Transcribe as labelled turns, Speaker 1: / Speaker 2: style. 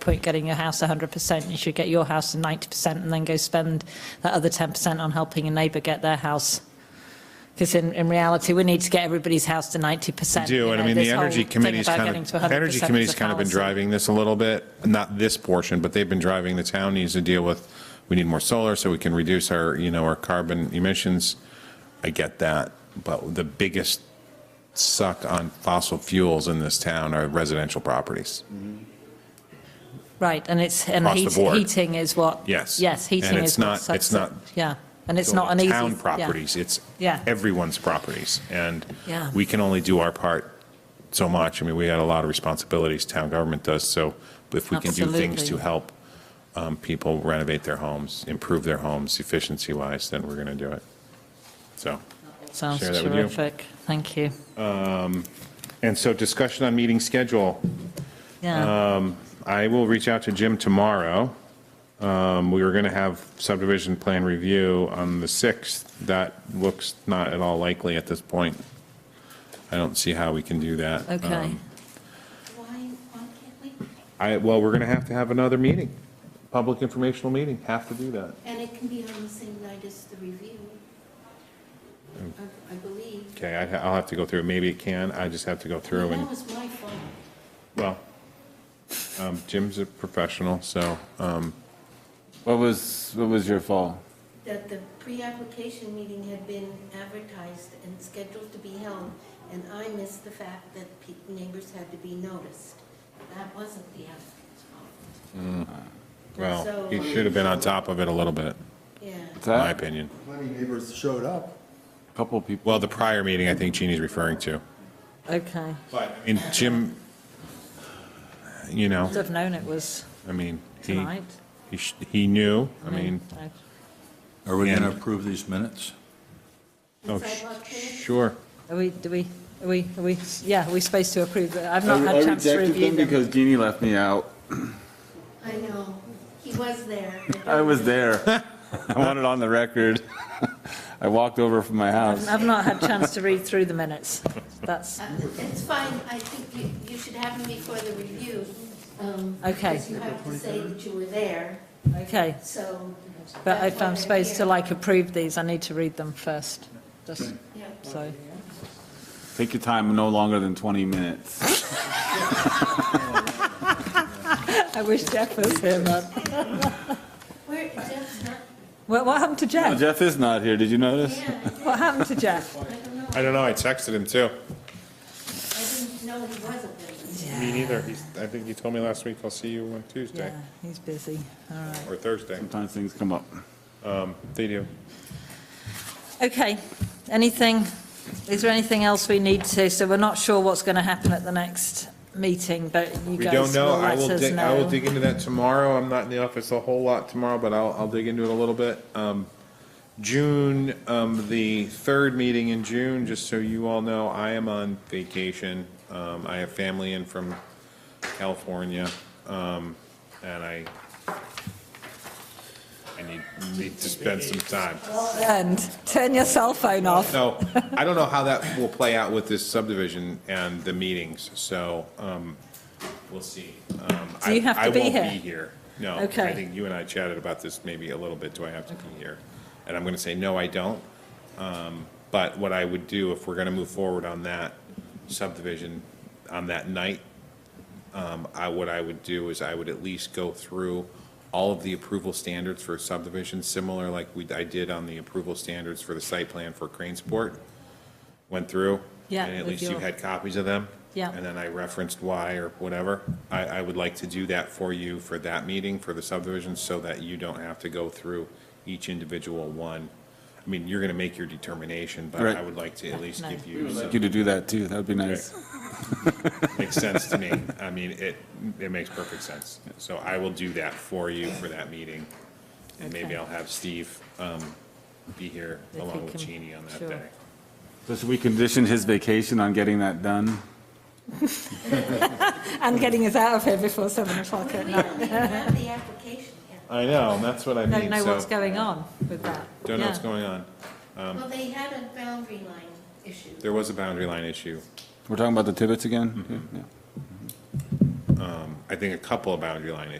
Speaker 1: point getting your house 100%. You should get your house to 90% and then go spend that other 10% on helping your neighbour get their house. Because in, in reality, we need to get everybody's house to 90%.
Speaker 2: We do,
Speaker 1: you
Speaker 2: and I
Speaker 1: know,
Speaker 2: mean,
Speaker 1: this
Speaker 2: the
Speaker 1: whole
Speaker 2: Energy
Speaker 1: thing
Speaker 2: Committee's
Speaker 1: about
Speaker 2: kind
Speaker 1: getting
Speaker 2: of,
Speaker 1: to 100%
Speaker 2: Energy
Speaker 1: is a
Speaker 2: Committee's kind of been
Speaker 1: fallacy.
Speaker 2: driving this a little bit, not this portion, but they've been driving, the town needs to deal with, we need more solar so we can reduce our, you know, our carbon emissions. I get that, but the biggest suck on fossil fuels in this town are residential properties.
Speaker 1: Right, and it's, and
Speaker 2: Across the
Speaker 1: heat-
Speaker 2: board.
Speaker 1: heating is what.
Speaker 2: Yes.
Speaker 1: Yes,
Speaker 2: And
Speaker 1: heating
Speaker 2: it's
Speaker 1: is what
Speaker 2: not-
Speaker 1: sucks
Speaker 2: it's
Speaker 1: it.
Speaker 2: not-
Speaker 1: Yeah, and it's not an easy.
Speaker 2: Town
Speaker 1: yeah.
Speaker 2: properties, it's
Speaker 1: Yeah.
Speaker 2: everyone's properties, and
Speaker 1: Yeah.
Speaker 2: we can only do our part so much. I mean, we had a lot of responsibilities, town government does, so if we can do things
Speaker 1: Absolutely.
Speaker 2: to help um, people renovate their homes, improve their homes efficiency-wise, then we're going to do it. So,
Speaker 1: Sounds
Speaker 2: Share that with you.
Speaker 1: terrific, thank you.
Speaker 2: and so discussion on meeting schedule.
Speaker 1: Yeah,
Speaker 2: I will reach out to Jim tomorrow. Um, We were going to have subdivision plan review on the 6th. That looks not at all likely at this point. I don't see how we can do that.
Speaker 1: okay.
Speaker 2: Um,
Speaker 3: Why, why can't we?
Speaker 2: I, well, we're going to have to have another meeting, public informational meeting, have to do that.
Speaker 3: And it can be on the same night as the review,
Speaker 2: Oh.
Speaker 3: I- I believe.
Speaker 2: Okay, I- I'll have to go through, it. maybe it can, I just have to go through and,
Speaker 3: That was my fault.
Speaker 2: well, um, Jim's a professional, so, um,
Speaker 4: What was, what was your fault?
Speaker 3: that the pre-application meeting had been advertised and scheduled to be held, and I missed the fact that pe- neighbors had to be noticed. That wasn't the
Speaker 2: Mm.
Speaker 3: applicant's fault.
Speaker 4: Uh,
Speaker 2: well, he should have been on top of it a little bit,
Speaker 3: Yeah,
Speaker 4: What's
Speaker 2: in my
Speaker 4: that?
Speaker 2: opinion.
Speaker 5: Plenty of neighbors showed up.
Speaker 4: Couple people.
Speaker 2: Well, the prior meeting, I think Jeannie's referring to.
Speaker 1: Okay,
Speaker 2: But, I mean, Jim, you know,
Speaker 1: I'd have known it was
Speaker 2: I mean, he,
Speaker 1: tonight.
Speaker 2: he sh- he knew, I mean,
Speaker 1: I-
Speaker 6: Are we going to
Speaker 2: And-
Speaker 6: approve these minutes?
Speaker 2: oh,
Speaker 3: The sidewalk
Speaker 2: sh-
Speaker 3: thing?
Speaker 2: sure.
Speaker 1: Are we, do we, are we, are we, yeah, are we supposed to approve it? I've not
Speaker 4: I
Speaker 1: had chance to
Speaker 4: rejected
Speaker 1: review
Speaker 4: them
Speaker 1: them.
Speaker 4: because Jeannie left me out.
Speaker 3: I know, he was there.
Speaker 4: I was there. I want it on the record. I walked over from my house.
Speaker 1: I've not had chance to read through the minutes. That's,
Speaker 3: Uh, It's fine, I think you, you should have them before the review. um,
Speaker 1: Okay.
Speaker 3: Because you have to say that you were there,
Speaker 1: okay,
Speaker 3: so.
Speaker 1: but
Speaker 3: that's
Speaker 1: if
Speaker 3: why
Speaker 1: I'm
Speaker 3: they're
Speaker 1: supposed to
Speaker 3: here.
Speaker 1: like approve these, I need to read them first, just
Speaker 3: Yeah.
Speaker 1: so.
Speaker 4: Take your time, no longer than 20 minutes.
Speaker 1: I wish Jeff was here, man.
Speaker 3: Where, Jeff's not,
Speaker 1: What, what happened to
Speaker 4: Oh,
Speaker 1: Jeff?
Speaker 4: Jeff is not here, did you notice?
Speaker 3: yeah,
Speaker 1: What happened to Jeff?
Speaker 3: I don't know,
Speaker 2: I don't know, I texted him too.
Speaker 3: I didn't know he wasn't there.
Speaker 2: Me neither, he's, I think he told me last week, I'll see you on Tuesday
Speaker 1: Yeah, he's busy, all right.
Speaker 2: or Thursday.
Speaker 4: Sometimes things come up.
Speaker 2: They do.
Speaker 1: Okay, anything, is there anything else we need to, so we're not sure what's going to happen at the next meeting, but you
Speaker 2: We
Speaker 1: guys
Speaker 2: don't know,
Speaker 1: will
Speaker 2: I
Speaker 1: let
Speaker 2: will
Speaker 1: us
Speaker 2: dig, I will
Speaker 1: know.
Speaker 2: dig into that tomorrow, I'm not in the office a whole lot tomorrow, but I'll, I'll dig into it a little bit. Um, June, um, the third meeting in June, just so you all know, I am on vacation. Um, I have family in from California, um, and I, I need, need to spend some time.
Speaker 1: And turn your cell phone off.
Speaker 2: So I don't know how that will play out with this subdivision and the meetings, so um, we'll see. Um,
Speaker 1: So you
Speaker 2: I-
Speaker 1: have to be
Speaker 2: I
Speaker 1: here?
Speaker 2: won't be here. No, I
Speaker 1: Okay.
Speaker 2: think you and I chatted about this maybe a little bit, do I have to be here? And I'm going to say, no, I don't. Um, But what I would do if we're going to move forward on that subdivision on that night, um, I, what I would do is I would at least go through all of the approval standards for subdivision, similar like we, I did on the approval standards for the site plan for Cranesport. Went through.
Speaker 1: Yeah,
Speaker 2: And at
Speaker 1: with
Speaker 2: least you
Speaker 1: your-
Speaker 2: had copies of them.
Speaker 1: Yeah.
Speaker 2: And then I referenced why or whatever. I, I would like to do that for you for that meeting, for the subdivision, so that you don't have to go through each individual one. I mean, you're going to make your determination, but I
Speaker 4: Right.
Speaker 2: would like to at least
Speaker 1: no.
Speaker 2: give you.
Speaker 4: We'd
Speaker 2: some-
Speaker 4: like you to do that too, that'd be nice.
Speaker 2: Makes sense to me. I mean, it, it makes perfect sense. So I will do that for you for that meeting. And
Speaker 1: Okay.
Speaker 2: maybe I'll have Steve um, be here
Speaker 1: If he
Speaker 2: along with
Speaker 1: can-
Speaker 2: Cheney on that
Speaker 1: sure.
Speaker 2: day.
Speaker 4: So should we condition his vacation on getting that done?
Speaker 1: And getting us out of here before seven o'clock
Speaker 3: We
Speaker 1: at night.
Speaker 3: don't even have the application yet.
Speaker 2: I know, and that's what I
Speaker 1: Don't
Speaker 2: mean,
Speaker 1: know what's
Speaker 2: so.
Speaker 1: going on with that.
Speaker 2: Don't know what's
Speaker 1: Yeah.
Speaker 2: going on.
Speaker 3: Well, they had a boundary line issue.
Speaker 2: There was a boundary line issue.
Speaker 4: We're talking about the Tibbetts again? Yeah.
Speaker 2: I think a couple of boundary line